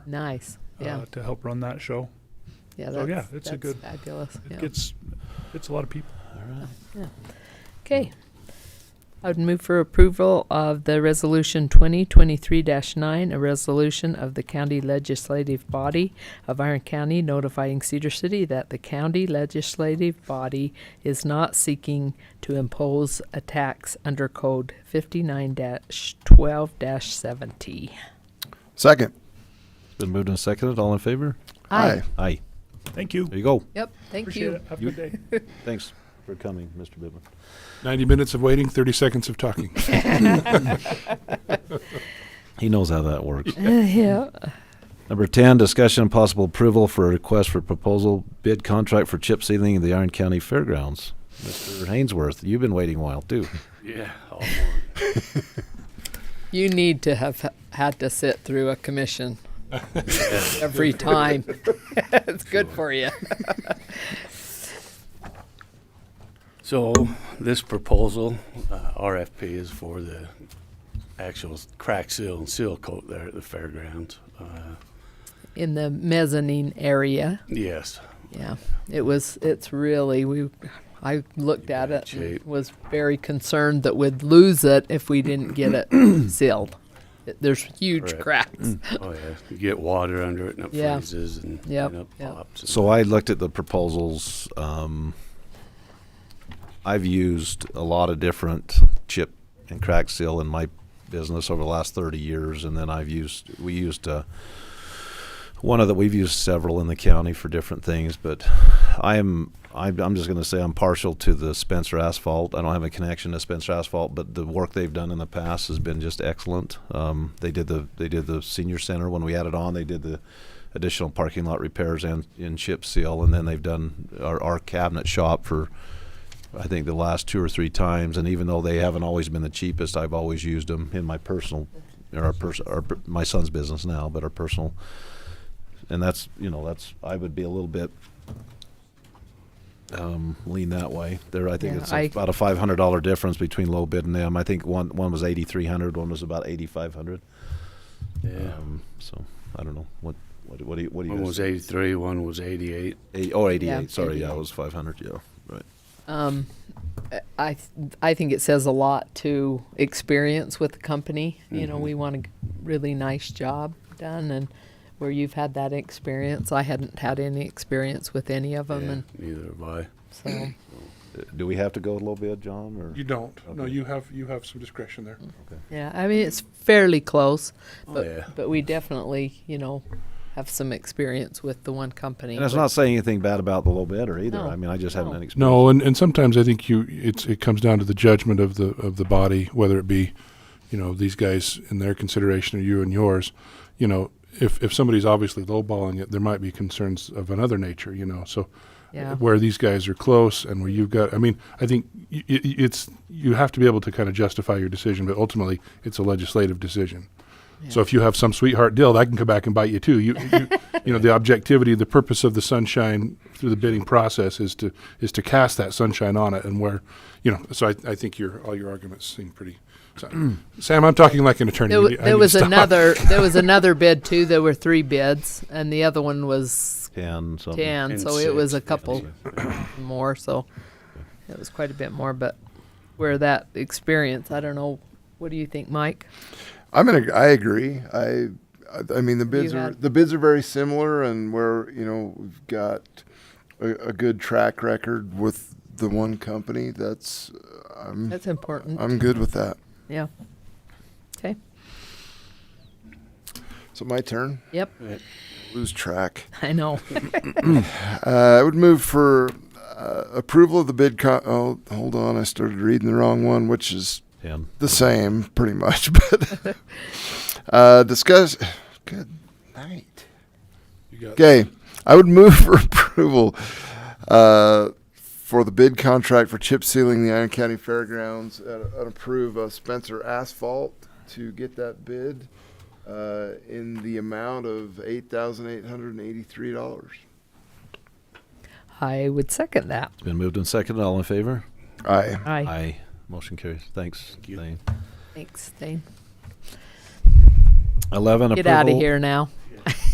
Nice. Yeah. uh, to help run that show. Yeah. so, That's, yeah, it's a that's good- Fabulous. It Yeah. gets it's a lot of people. Okay. I would move for approval of the resolution twenty twenty-three nine, a resolution of the county legislative body of Iron County notifying Cedar City that the county legislative body is not seeking to impose a tax under code fifty-nine twelve seventy. Second. It's been moved and seconded. All in favor? Aye. Aye. Thank you. There you go. Yep, thank Appreciate you. it. Have a good day. Thanks for coming, Mr. Bibben. 90 minutes of waiting, 30 seconds of talking. He knows how that works. Yeah. Number 10, discussion and possible approval for a request for proposal bid contract for chip sealing of the Iron County Fairgrounds. Mr. Hainsworth, you've been waiting a while too. Yeah. You need to have h- had to sit through a commission every time. it's good for you. So this proposal, uh, RFP, is for the actual crack seal and seal coat there at the fairgrounds. Uh, In the mezzanine area, Yes, yeah, it was. It's really we. I looked at it and Shape. was very concerned that we'd lose it if we didn't get it sealed. It- There's huge Correct. cracks. oh yeah, you get water under it and it Yeah. freezes and Yep, and it yep. pops. So I looked at the proposals. Um, I've used a lot of different chip and crack seal in my business over the last 30 years, and then I've used we used uh, one of that we've used several in the county for different things. But I am I'm, I'm just going to say I'm partial to the Spencer Asphalt. I don't have a connection to Spencer Asphalt, but the work they've done in the past has been just excellent. Um, they did the they did the senior center when we added on. They did the additional parking lot repairs and in chip seal, and then they've done our, our cabinet shop for I think the last two or three times. And even though they haven't always been the cheapest, I've always used them in my personal or our pers- our, per- my son's business now, but our personal. And that's you know that's I would be a little bit um, lean that way. There, I think Yeah, it's I- about a five hundred dollar difference between low bid and them. I think one one was eighty three hundred, one was about eighty five hundred. Yeah, Um, so I don't know what what what do you what do you one guys was eighty-three, one was eighty-eight. Eight, oh, 88. Yeah, Sorry, yeah, 88. it was 500. Yeah, right. Um, I th- I think it says a lot to experience with the company. You Mm-hmm. know, we want a g- really nice job done, and where you've had that experience, I hadn't had any experience with any of them, Yeah, and Neither have I. so Uh, Do we have to go a little bit, John? Or You don't. No, Okay. you have, you have some discretion there. yeah, I mean it's fairly close, Oh, but yeah. but we definitely you know have some experience with the one company. and it's but- not saying anything bad about the low bidder either. No, I mean, I just haven't no. had experience. No, and, and sometimes I think you, it's, it comes down to the judgment of the, of the body, whether it be, you know, these guys in their consideration or you and yours. You know, if, if somebody's obviously lowballing it, there might be concerns of another nature, you know, so. yeah. where these guys are close and where you've got. I mean, I think y- y- y- it's you have to be able to kind of justify your decision, but ultimately it's a legislative decision. So Yeah. if you have some sweetheart deal, that can come back and bite you too. You, you, you know, the objectivity, the purpose of the sunshine through the bidding process is to is to cast that sunshine on it, and where, you know. So I, I think your all your arguments seem pretty. sound. Sam, I'm talking like an attorney. There, You wa- need- I need there to was stop. another there was another bid too. There were three bids, and the other one was 10, something. 10 And so it six, was a yeah, couple more so it was quite a bit more but where that experience i don't know what do you think mike I'm gonna. I agree. I. I- I mean the bids You are had- the bids are very similar, and we're you know we've got a, a good track record with the one company. That's uh, I'm that's important I'm good with that. yeah okay So my turn. yep Lose track. i know Uh, I would move for uh, approval of the bid. Co- oh, hold on. I started reading the wrong one, which is 10. the same, pretty much. But uh, discuss. Good night. You got- Okay, I would move for approval uh, for the bid contract for chip sealing the Iron County Fairgrounds and, and approve uh, Spencer Asphalt to get that bid uh, in the amount of eight thousand eight hundred and eighty-three dollars. i would second that It's been moved and seconded. All in favor? Aye. aye Aye. Motion carries. Thanks. you. Thane. thanks Dane. 11. get approval, out of here now